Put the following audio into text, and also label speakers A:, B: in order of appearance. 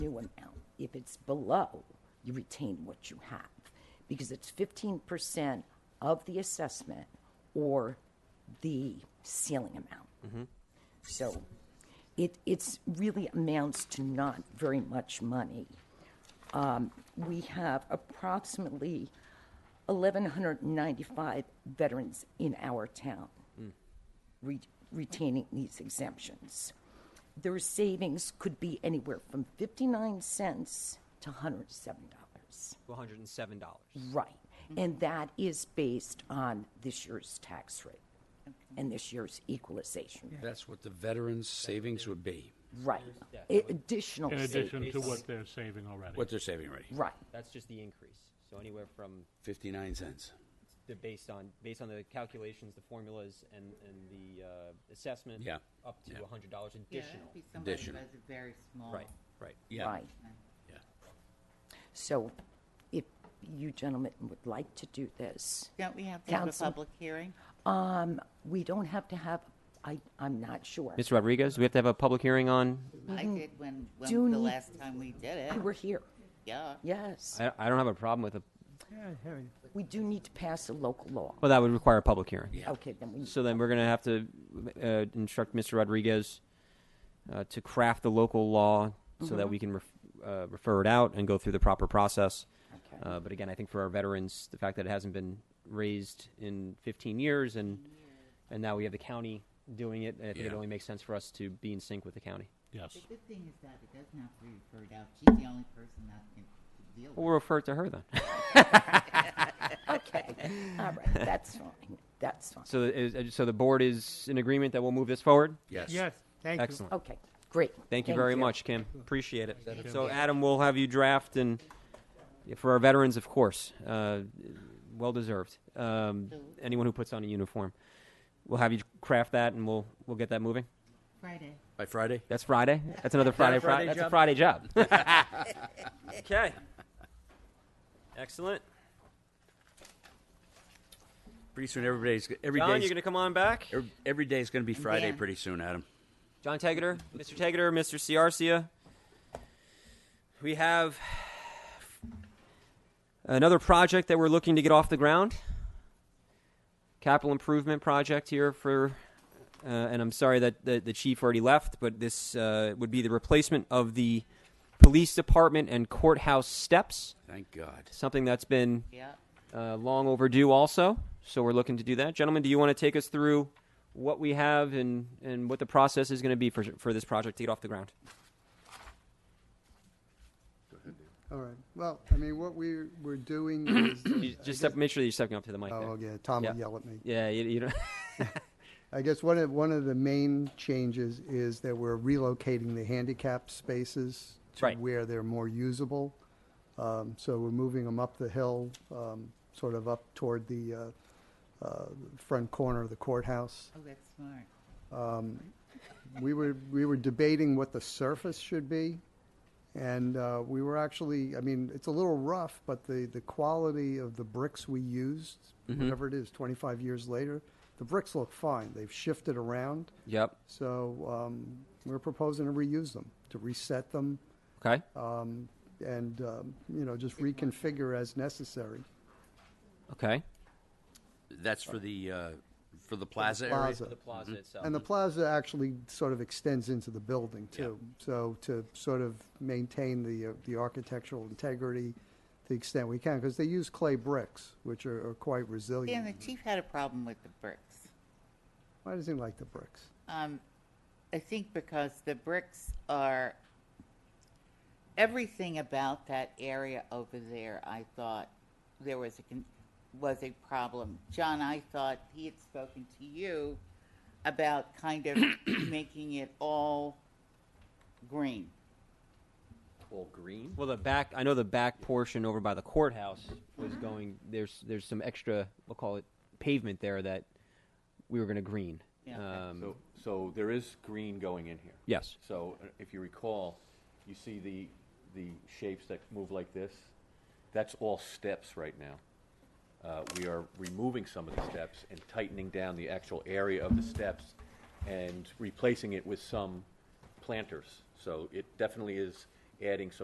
A: new amount. If it's below, you retain what you have, because it's fifteen percent of the assessment or the ceiling amount. So it, it's really amounts to not very much money. Um, We have approximately 1,195 veterans in our town re- retaining these exemptions. Their savings could be anywhere from 59 cents to $107.
B: $107.
A: Right. And that is based on this year's tax rate and this year's equalization rate.
C: That's what the veterans' savings would be,
A: Right. Additional
D: In addition to
A: savings.
D: what they're saving already.
C: what they're saving already,
A: Right.
B: That's just the increase. So anywhere from
C: 59 cents.
B: the based on based on the calculations, the formulas, and and the uh, assessment.
C: Yeah.
B: Up to
C: Yeah.
B: $100 additional.
E: Yeah, it'd be somebody who
C: Additional.
E: has a very small.
B: Right. Right.
C: Yeah,
A: Right.
C: yeah.
A: So if you gentlemen would like to do this,
E: Don't we have to have a
A: Counsel?
E: public hearing?
A: we don't have to have, I, I'm not sure.
B: Mr. Rodriguez, we have to have a public hearing on.
E: I did when,
A: Do
E: when the
A: need-
E: last time we did it.
A: We were here.
E: Yeah.
A: Yes.
B: I, I don't have a problem with a.
A: We do need to pass a local law.
B: Well, that would require a public hearing.
A: Okay, then we,
B: So then we're going to have to uh, instruct Mr. Rodriguez uh, to craft the local law so that we can ref- uh, refer it out and go through the proper process.
A: Okay.
B: Uh, but again, I think for our veterans, the fact that it hasn't been raised in 15 years and and now we have the county doing it, I think it
C: Yeah.
B: only makes sense for us to be in sync with the county.
D: Yes.
E: The good thing is that it doesn't have to be referred out. She's the only person that can deal with it.
B: Well, we'll refer it to her then.
A: okay, all right, that's fine, that's fine.
B: so, the- is- uh, so the board is in agreement that we'll move this forward.
C: Yes.
F: Yes, thank you.
B: Excellent.
A: Okay, great.
B: Thank you very much, Kim. Appreciate it. So,
D: okay?
B: Adam, we'll have you draft, and yeah, for our veterans, of course, uh, well deserved. Um, anyone who puts on a uniform, we'll have you craft that, and we'll we'll get that moving.
E: Friday.
C: By Friday?
B: That's Friday. That's another Friday.
C: a Friday
B: Friday that's a
C: job?
B: Friday job. okay. Excellent.
C: Pretty soon, everybody's, every
B: John, you're
C: day's,
B: going to come on back.
C: every- every day's going to be Friday
E: Dan.
C: pretty soon, Adam.
B: John Tegeter, Mr. Tegeter, Mr. Ciarcia. We have another project that we're looking to get off the ground. Capital improvement project here for, uh, and I'm sorry that the, the chief already left, but this uh, would be the replacement of the police department and courthouse steps,
C: Thank God.
B: something that's been
E: Yeah.
B: uh, long overdue also. So we're looking to do that. Gentlemen, do you want to take us through what we have and, and what the process is going to be for, for this project to get off the ground?
F: All right, well, I mean, what we were doing is.
B: You just step, make sure that you're stepping up to the mic.
F: Oh,
B: there.
F: yeah, Tom
B: Yeah.
F: will yell at me.
B: Yeah, you, you don't.
F: I guess one of, one of the main changes is that we're relocating the handicap spaces to
B: Right.
F: where they're more usable. Um, so we're moving them up the hill, um, sort of up toward the, uh, uh, front corner of the courthouse.
E: Oh, that's smart.
F: we were we were debating what the surface should be, and uh, we were actually. I mean, it's a little rough, but the the quality of the bricks we used, whatever it is, 25 years later, the bricks look fine. They've shifted around,
B: yep.
F: so um, we're proposing to reuse them, to reset them,
B: Okay.
F: um, and um, you know just reconfigure as necessary.
B: Okay.
C: That's for the, uh, for the plaza area?
F: plaza.
B: The plaza itself.
F: And the plaza actually sort of extends into the building too. So to sort of maintain the, uh, the architectural integrity to the extent we can, because they use clay bricks, which are, are quite
E: Dan, the
F: resilient.
E: chief had a problem with the bricks.
F: Why does he like the bricks?
E: Um, I think because the bricks are everything about that area over there. I thought there was a con- was a problem. John, I thought he had spoken to you about kind of making it all green.
B: well, the back. I know the back portion over by the courthouse was going. There's there's some extra. We'll call it pavement there that we were going to green.
E: Yeah.
G: Uh,
B: Um,
G: So, so there is green going in here.
B: Yes.
G: So uh, if you recall, you see the, the shapes that move like this? That's all steps right now. Uh, we are removing some of the steps and tightening down the actual area of the steps and replacing it with some planters. So it definitely is adding some